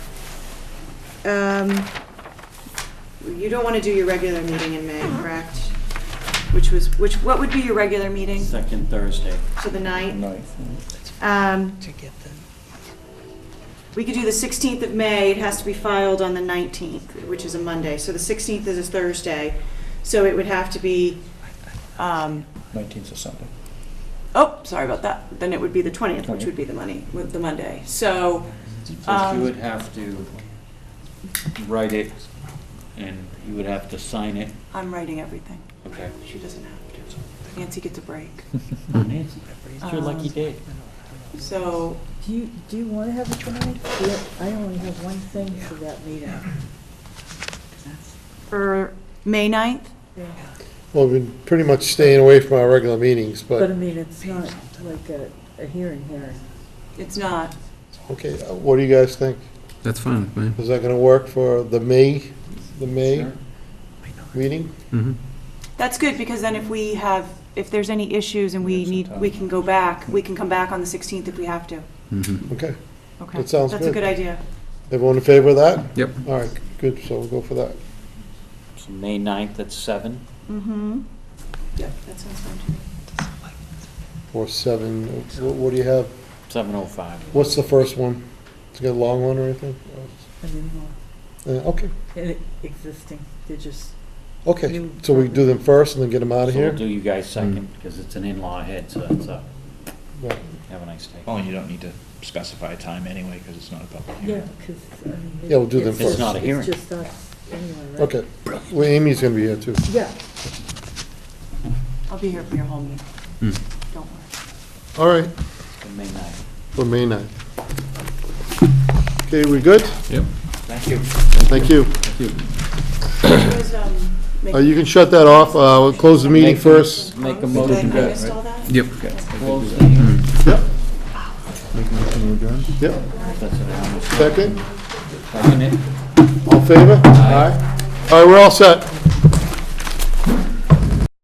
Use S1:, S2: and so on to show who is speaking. S1: um, you don't want to do your regular meeting in May, correct? Which was, which, what would be your regular meeting?
S2: Second Thursday.
S1: So the ninth?
S3: Ninth.
S1: Um,
S4: to get them.
S1: We could do the 16th of May, it has to be filed on the 19th, which is a Monday, so the 16th is a Thursday, so it would have to be, um,
S3: Nineteenth or something.
S1: oh, sorry about that, then it would be the 20th, which would be the money, the Monday. So,
S2: So
S1: Um,
S2: you would have to write it, and you would have to sign it.
S1: I'm writing everything,
S2: Okay.
S1: she doesn't have to. Nancy gets a break.
S2: Nancy, it's your lucky
S1: Um,
S2: day.
S1: So,
S5: Do you, do you want to have a tonight? Yeah, I only have one thing for that meeting.
S1: for May 9th?
S6: Well, we've been pretty much staying away from our regular meetings,
S5: But I
S6: but,
S5: mean, it's not like a, a hearing hearing.
S1: It's not.
S6: okay, uh, what do you guys think?
S7: That's fine with me.
S6: Is that gonna work for the May, the May meeting?
S7: Mhm.
S1: That's good, because then if we have, if there's any issues and we
S3: Yes,
S1: need, we can go back, we can come back on the 16th if we have to.
S7: Mhm.
S6: Okay,
S1: Okay.
S6: That sounds
S1: That's a
S6: good.
S1: good idea.
S6: everyone in favor of that?
S7: Yep.
S6: All right, good, so we'll go for that.
S2: So May 9th at seven.
S1: Mm-hmm. Yep, that sounds fine to me.
S6: Or seven, what, what do you have?
S2: 7:05.
S6: What's the first one? It's got a long one or anything?
S5: I mean, well,
S6: Uh, okay,
S5: and it- existing, they're just,
S6: okay, so we do them first and then get them out of
S2: So we'll
S6: here?
S2: do you guys second, because it's an in-law head, so that's up.
S6: Right.
S2: Have a nice day.
S3: Well, you don't need to specify a time anyway, because it's not a public
S5: yeah,
S3: hearing.
S5: because, I mean.
S6: Yeah, we'll do them
S5: it's-
S6: first. It's
S2: not a hearing.
S5: It's just us, anyway, right?
S6: Okay, well, Amy's gonna be here too.
S5: Yeah.
S1: I'll be here for your whole meeting.
S2: Hmm.
S7: Mm.
S1: Don't worry.
S6: All right,
S2: So May 9th.
S6: for May ninth. Okay, we good?
S7: Yep.
S2: Thank you.
S6: Thank you.
S2: um,
S6: Uh, you can shut that off, uh, we'll close the meeting first.
S2: Make a motion
S1: Did I- I
S2: to
S1: missed all that?
S7: Yep.
S2: close the hearing.
S6: Yep. Yep, second,
S2: Second it.
S6: all in favor? Aye. All right, we're all set.